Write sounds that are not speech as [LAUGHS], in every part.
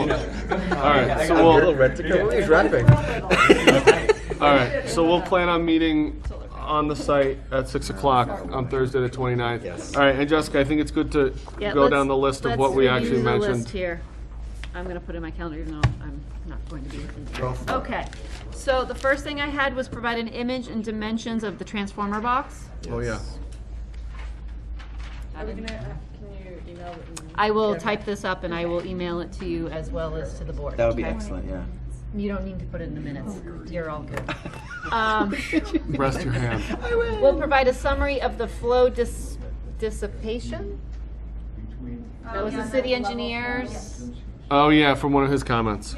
All right, so I'm we'll, red to go. He's rapping. [LAUGHS] all right, so we'll plan on meeting on the site at six o'clock on Thursday the 29th. Yes. All right, and Jessica, I think it's good to Yeah, go let's- down the list of what we actually Let's review the list mentioned. here. I'm gonna put in my calendar, even though I'm not going to be with you. Okay, so the first thing I had was provide an image and dimensions of the transformer box. Oh, yeah. Are we gonna, uh, can you email it? and- I will type this up and I will email it to you as well as to the board. That would be okay? excellent, yeah. You don't need to put it in the minutes, you're all good. Um, [LAUGHS] Rest your hand. [LAUGHS] We'll provide a summary of the flow dis- dissipation? That was the city engineers, Oh, yeah, from one of his comments.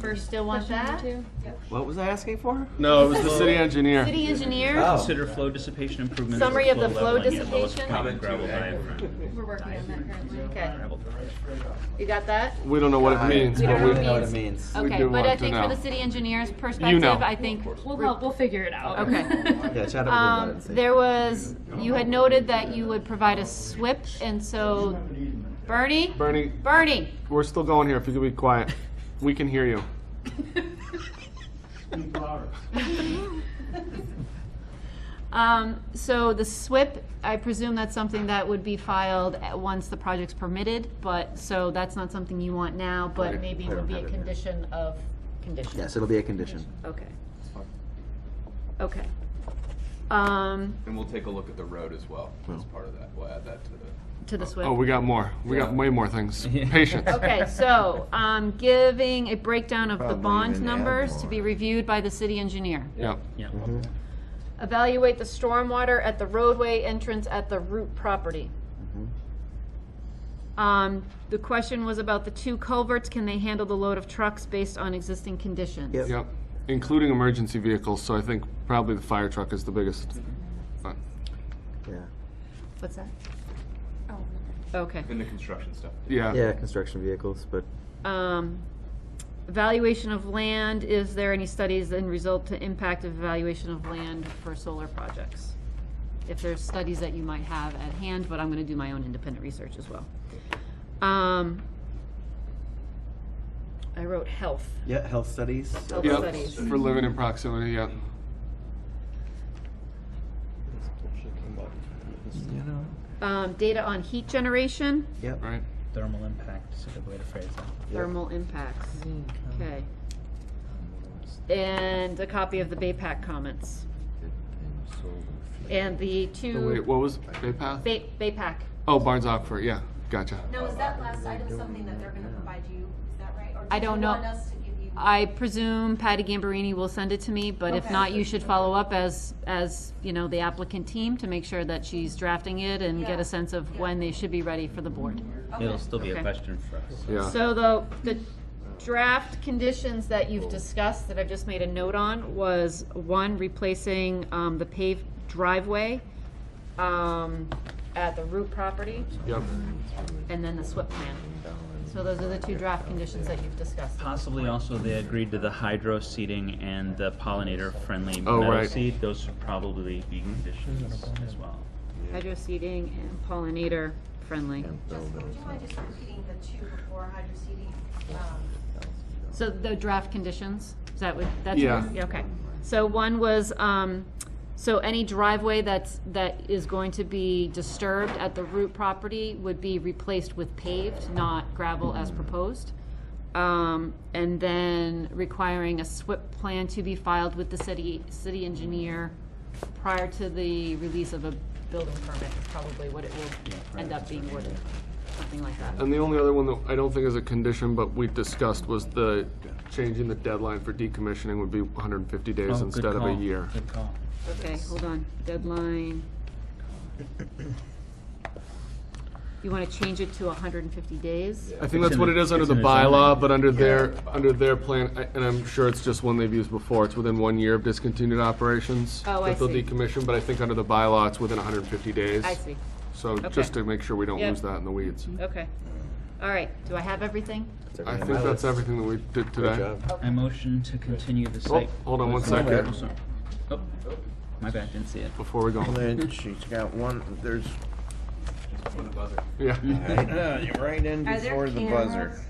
first still want that? What was I asking for? No, it was the city engineer. City [LAUGHS] engineers? Oh. Consider flow dissipation improvements. Summary of the flow leveling at lowest dissipation. common gravel diaphragm. We're working on that currently. Okay, Gravel [LAUGHS] diaphragm. you got that? We don't know what it means, We but don't we, know what it means. We Okay, do but want I to think know. for the city engineer's You know. perspective, I think, We'll help, we'll figure it out. [LAUGHS] okay. Yeah, chat up about it. Um, and see. there was, you had noted that you would provide a SWIP, and so, Bernie? Bernie, Bernie, [LAUGHS] we're still going here, if you could be quiet. We can hear you. um, so the SWIP, I presume that's something that would be filed at- once the project's permitted, but, so that's not something you want now, but Right. maybe I would don't be a have it here. condition of condition. Yes, it'll be a condition. Okay. Okay. Um, And we'll take a look at the road as well, as part of that, we'll add that to the. to the SWIP. Oh, we got more. We got way more things. Patience. Okay, so, um, giving a breakdown of the Probably bond even add numbers to more. be reviewed by the city engineer. Yeah. Yeah. Evaluate the stormwater at the roadway entrance at the root property. Mm-hmm. Um, the question was about the two culverts, can they handle the load of trucks based on existing conditions? Yep. Yep, including emergency vehicles, so I think probably the fire truck is the biggest. one. Yeah. What's that? Okay. In the construction stuff. Yeah, Yeah, construction vehicles, but Um, evaluation of land, is there any studies and result to impact of evaluation of land for solar projects? If there's studies that you might have at hand, but I'm gonna do my own independent research as well. Um, I wrote health, yeah, health studies. so- health yep, studies. for living in proximity, yeah. You know, Um, data on heat generation, yep. right? Thermal impact is a good way to phrase that. thermal impacts, okay. And a copy of the BayPAC comments, and the Oh, Wait, two, what was, Bay Path? Bay, BayPAC, Oh, Barnes Aquifer, yeah, gotcha. Now, is that last item something that they're gonna provide you, is that right? I don't know. Or do you want us to give you? I presume Patty Gambarini will send it to me, but if Okay. not, you should follow up as, as, you know, the applicant team to make sure that she's drafting it and get Yeah. a sense of when they should be ready for the board. It'll still be Okay. a question for us. Yeah, So the, the draft conditions that you've discussed, that I've just made a note on, was one, replacing, um, the paved driveway, um, at the root property, yep, and then the SWIP plan. So those are the two draft conditions that you've discussed. Possibly also they agreed to the hydro seeding and the pollinator-friendly Oh, meadow right. seed. Those should probably be conditions as well. Hydro seeding and pollinator friendly. Just, would you mind just repeating the two before hydro seeding? Um, So the draft conditions, is that what, that's? Yeah. Okay. So one was, um, so any driveway that's, that is going to be disturbed at the root property would be replaced with paved, not gravel as proposed. Um, and then requiring a SWIP plan to be filed with the city, city engineer prior to the release of a building permit is probably what it will end up being, worded, something like that. and the only other one that I don't think is a condition, but we discussed was the changing the deadline for decommissioning would be hundred and fifty Oh, days good instead of a call. year. Good call. Okay, hold on, deadline. You wanna change it to hundred and fifty days? I think It's that's in what the- it is under it's the in the zoning. bylaw, but under their, under their plan, I- and I'm sure it's just one they've used before, it's within one year of discontinued operations. Oh, I That they'll see. decommission, but I think under the bylaw, it's within hundred and fifty days. I see, So just to make sure we don't Yep. lose that in the weeds. okay. All right, do I have everything? I think that's everything that we did Good today. job. I motion to continue the Oh, site. hold on one Oh, second, sorry. Oh, My bad, didn't see it. before we go. Then she's got one, there's, Yeah. right in [LAUGHS] Are there before the buzzer. cameras?